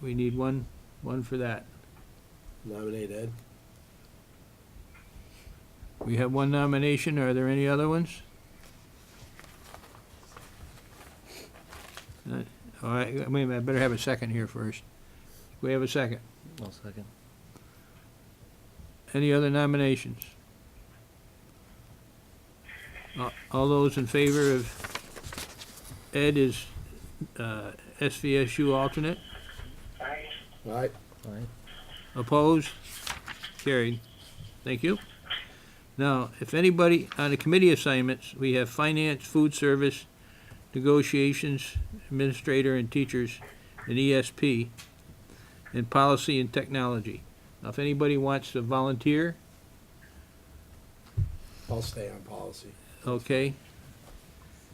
we need one, one for that. Nominate Ed. We have one nomination, are there any other ones? None. Uh, All right, wait a minute, I better have a second here first. We have a second. I'll second. Any other nominations? A- All those in favor of Ed is uh, SVSU alternate? All right, Aye. Opposed? Carried. Thank you. Now, if anybody on the committee assignments, we have finance, food service, negotiations, administrator and teachers, and ESP, and policy and technology. Now, if anybody wants to volunteer, I'll stay on policy. okay.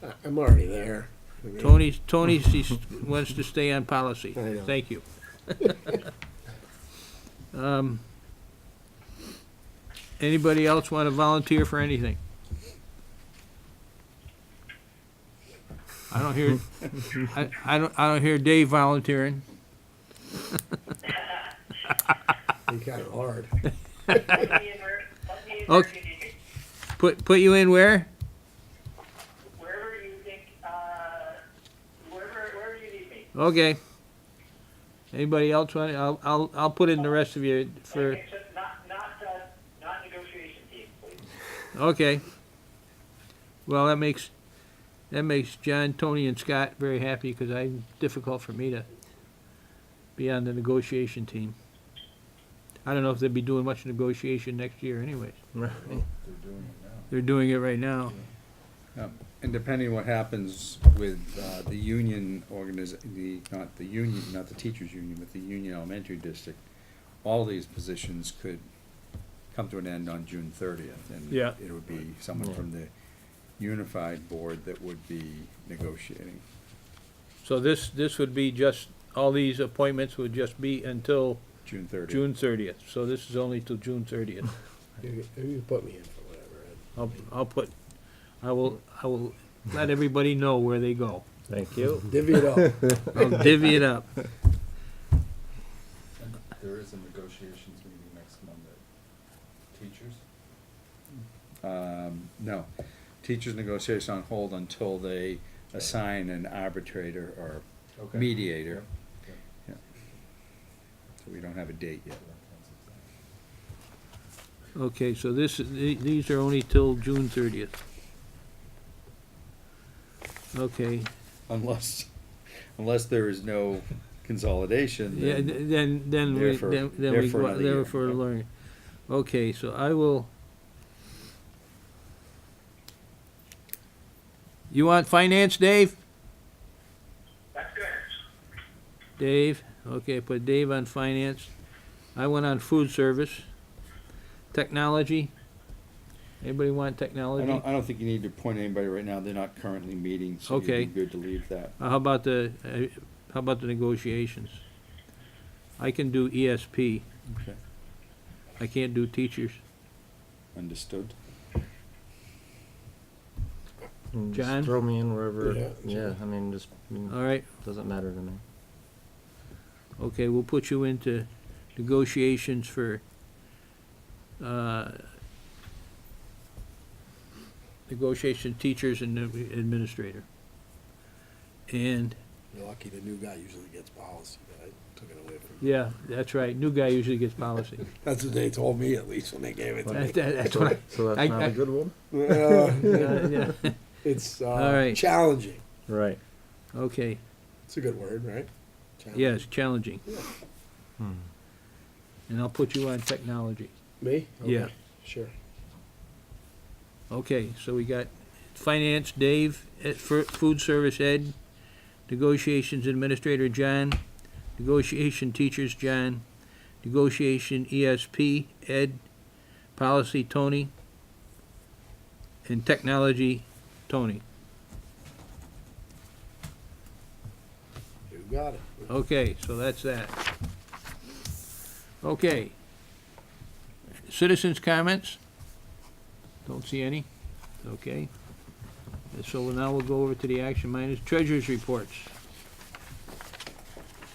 I- I'm already there. I mean, Tony, Tony s- wants to stay on policy. I know. Thank you. Um, Anybody else want to volunteer for anything? I don't hear, I, I don't, I don't hear Dave volunteering. He kind of hard. Okay. Put, put you in where? Wherever you think, uh, wherever, wherever you need me. Okay. Anybody else want, I'll, I'll, I'll put in the rest of you for, Except not, not, uh, not negotiation team, please. okay. Well, that makes, that makes John, Tony, and Scott very happy, because I, difficult for me to be on the negotiation team. I don't know if they'll be doing much negotiation next year anyways. They're doing it now. They're doing it right now. And depending what happens with uh, the union organiz, the, not the union, not the teachers' union, but the union elementary district, all these positions could come to an end on June thirtieth. Yeah. And it would be someone from the unified board that would be negotiating. So this, this would be just, all these appointments would just be until June thirtieth. June thirtieth. So this is only till June thirtieth. You you can put me in for whatever, Ed. I'll, I'll put, I will, I will let everybody know where they go. Thank you. Divvy it up. I'll divvy it up. There is a negotiations meeting next Monday. Teachers? Um, no. Teachers negotiations on hold until they assign an arbitrator or mediator. Yeah. So we don't have a date yet. Okay, so this, is- the- these are only till June thirtieth. Okay, Unless, unless there is no consolidation, yeah, then- th- then, then we, Therefore- then then we, therefore go- another year. therefore learn. Okay, so I will. You want finance, Dave? That's good. Dave, okay, put Dave on finance. I went on food service. Technology. Anybody want I technology? don't, I don't think you need to appoint anybody right now. They're not currently meeting, so you'd Okay. be good to leave that. Uh, How about the, uh, how about the negotiations? I can do ESP. Okay. I can't do teachers. Understood? And Mm, just John? Throw me in wherever, Yeah, yeah, I mean, just, I mean, All right, doesn't matter to me. okay, we'll put you into negotiations for, uh, negotiation teachers and administrator. And, You're lucky the new guy usually gets policy, but I took it away from him. yeah, that's right, new guy usually gets policy. That's what they told me at least when they gave it to That- me. that- That's So- what So I- that's not I- a good one? I, Uh, yeah, It's All uh, right. challenging. Right. okay, It's a good word, right? yes, challenging. Hmm. And I'll put you on technology. Me? Yeah. Okay, Sure. Okay, so we got finance, Dave, eh, fir- food service, Ed, negotiations administrator, John, negotiation teachers, John, negotiation ESP, Ed, policy, Tony, and technology, Tony. You got it. Okay, so that's that. Okay. Citizens' comments? Don't see any? Okay. And So now we'll go over to the action minus treasurer's reports.